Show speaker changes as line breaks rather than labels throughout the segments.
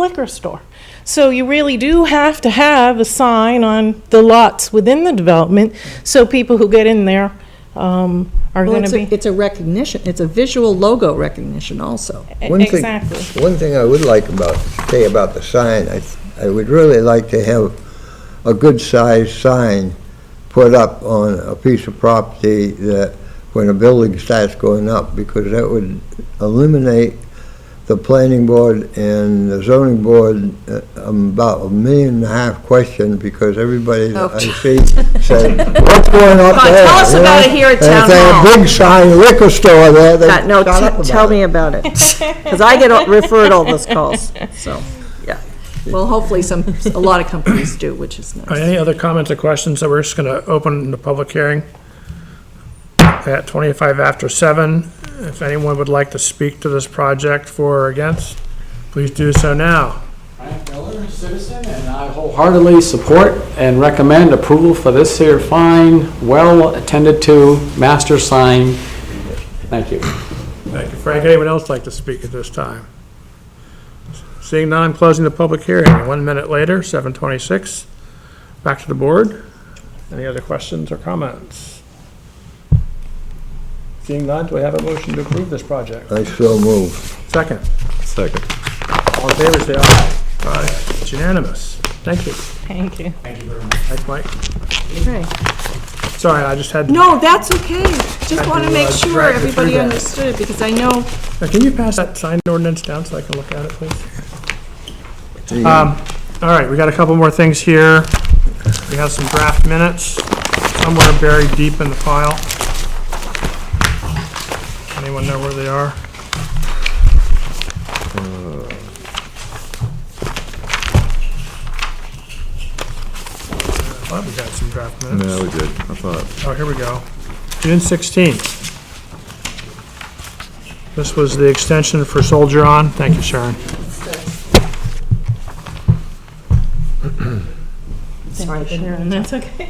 liquor store. So you really do have to have a sign on the lots within the development, so people who get in there um, are
Well,
going
it's
to
a,
be.
it's a recognition, it's a visual logo recognition also.
One thing-
Exactly.
One thing I would like about, say about the sign, I, I would really like to have a good-sized sign put up on a piece of property that, when a building starts going up, because that would eliminate the planning board and the zoning board uh, um, about a million and a half question, because everybody that I see says, what's going up
Oh. Come on,
there?
tell us
you know?
about it here at
And if
town
they had
hall.
a big sign, liquor store there, they
God,
shut
no,
up about
t-
it.
tell me about it, because I get all- referred all those calls, so, yeah. Well, hopefully some, a lot of companies do, which is
All right,
nice.
any other comments or questions that we're just gonna open the public hearing at twenty-five after seven? If anyone would like to speak to this project for or against, please do so now.
Frank Miller, citizen, and I wholeheartedly support and recommend approval for this here fine, well-attended-to master sign. Thank you.
Thank you, Frank. Anyone else like to speak at this time? Seeing none, I'm closing the public hearing. One minute later, seven twenty-six. Back to the board. Any other questions or comments? Seeing none, do we have a motion to approve this project?
I so move.
Second.
Second.
All in favor, say aye. Aye. It's unanimous. Thank you.
Thank you.
Thanks, Mike.
Okay.
Sorry, I just had,
No, that's okay, just want to make
I
sure
dragged you uh, through
everybody
that.
understood, because I know
Now, can you pass that signed ordinance down so I can look at it, please? Um, All right, we got a couple more things here. We have some draft minutes somewhere buried deep in the file. Anyone know where they are? Uh, I thought we got some draft minutes.
No, we did, I thought.
Oh, here we go. June 16th. This was the extension for Soldier On. Thank you, Sharon.
Sorry, Sharon, that's okay.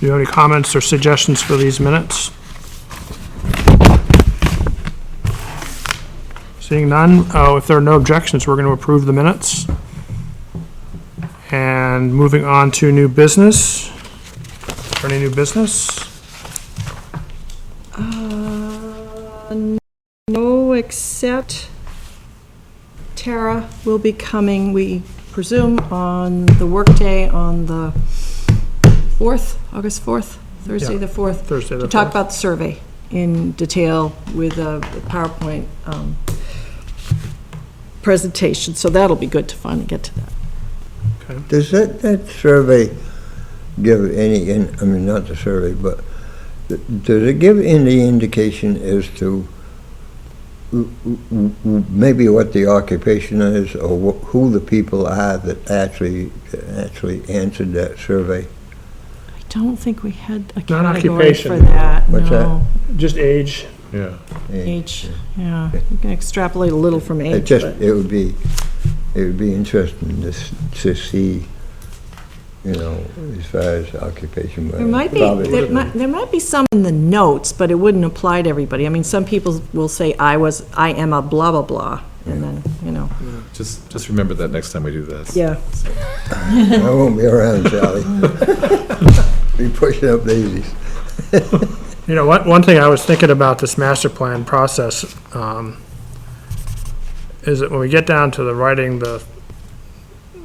Do you have any comments or suggestions for these minutes? Seeing none, oh, if there are no objections, we're going to approve the minutes. And moving on to new business. Is there Any new business?
Uh, No, except Tara will be coming, we presume, on the workday on the 4th, August 4th, Thursday
Yeah.
the 4th,
Thursday the
to talk
4th.
about the survey in detail with a PowerPoint um, presentation, so that'll be good to finally get to that.
Does that, that survey give any, in- I mean, not the survey, but th- does it give any indication as to w- w- w- maybe what the occupation is or wh- who the people are that actually, that actually answered that survey?
I don't think we had a
Not
category for
occupation.
that,
What's that?
no.
Just age.
Yeah.
Age, yeah, you can extrapolate a little from
It
age,
just,
but,
it would be, it would be interesting to, s- to see, you know, as far as occupation. but
there might be,
probably
there
isn't.
might, there might be some in the notes, but it wouldn't apply to everybody. I mean, some people will say, I was, I am a blah, blah, blah, and then, you know.
Just, just remember that next time we do this.
Yeah.
I won't be around, Charlie. Be pushing up daisies.
You know, one, one thing I was thinking about this master plan process, um, is that when we get down to the writing, the,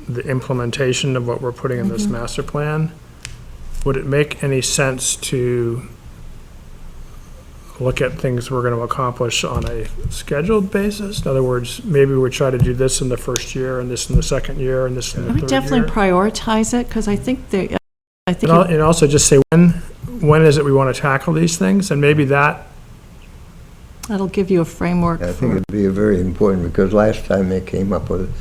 the implementation of what we're putting in this
Mm-hmm.
master plan, would it make any sense to look at things we're gonna accomplish on a scheduled basis? In other words, maybe we try to do this in the first year, and this in the second year, and this in
I
the third year?
would definitely prioritize it, because I think they, I think
And al- and also just say, when, when is it we wanna tackle these things? And maybe that
that'll give you a framework
I think
for,
it'd be very important, because last time they came up with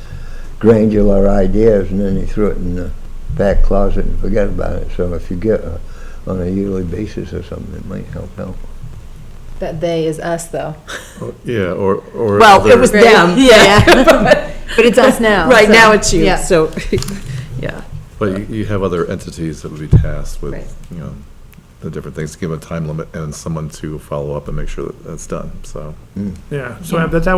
granular ideas, and then they threw it in the back closet and forgot about it. So if you get uh, on a yearly basis or something, it might help out.
That they is us, though.
Yeah, or, or.
well, it
other-
was them, yeah.
But it's us now.
Right
so,
now, it's you,
yeah.
so, yeah.
But you, you have other entities that would be tasked with,
Right.
you know, the different things, give a time limit and someone to follow up and make sure that that's done, so.
Yeah, so I- but that